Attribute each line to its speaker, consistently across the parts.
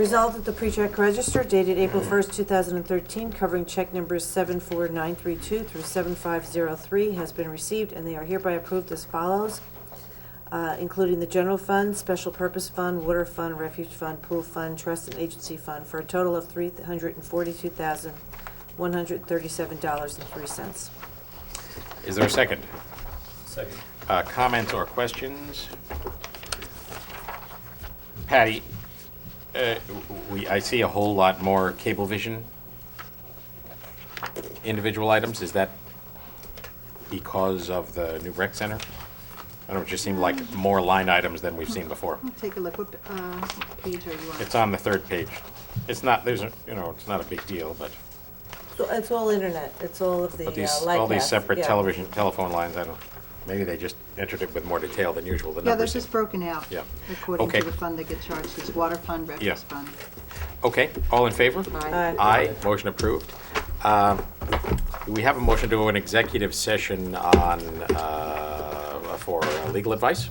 Speaker 1: Resolved that the pre-check register dated April 1st, 2013, covering check numbers 74932 through 7503 has been received, and they are hereby approved as follows, uh, including the general fund, special purpose fund, water fund, refuge fund, pool fund, trust and agency fund, for a total of $342,137.03.
Speaker 2: Is there a second?
Speaker 3: Second.
Speaker 2: Uh, Comments or questions? Patty, uh, w- we, I see a whole lot more Cablevision individual items. Is that because of the new rec center? I don't know, it just seemed like more line items than we've seen before.
Speaker 4: Take a look, what uh, page are you on?
Speaker 2: It's on the third page. It's not, there's, a you know, it's not a big deal, but,
Speaker 1: So It's all internet, it's all of the uh,
Speaker 2: but
Speaker 1: light
Speaker 2: these, all these separate television, telephone lines, I don't, maybe they just entered it with more detail than usual, the
Speaker 4: Yeah, they're
Speaker 2: numbers.
Speaker 4: just broken out.
Speaker 2: Yeah.
Speaker 4: According
Speaker 2: Okay.
Speaker 4: to the fund they get charged, it's water fund,
Speaker 2: Yeah.
Speaker 4: refuge fund.
Speaker 2: Okay, all in favor?
Speaker 4: Aye.
Speaker 2: Aye, motion approved. Um, Do we have a motion to go an executive session on, uh, for uh, legal advice?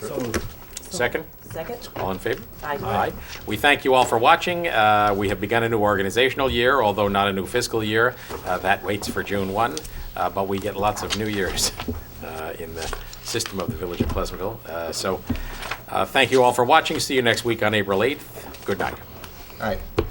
Speaker 3: So moved.
Speaker 2: Second,
Speaker 1: Second?
Speaker 2: all in favor?
Speaker 1: Aye.
Speaker 2: Aye. We thank you all for watching. Uh, We have begun a new organizational year, although not a new fiscal year. Uh, That waits for June 1, uh, but we get lots of new years uh, in the system of the Village of Pleasantville. Uh, So, uh, thank you all for watching. See you next week on April 8th. Good night.
Speaker 5: All right.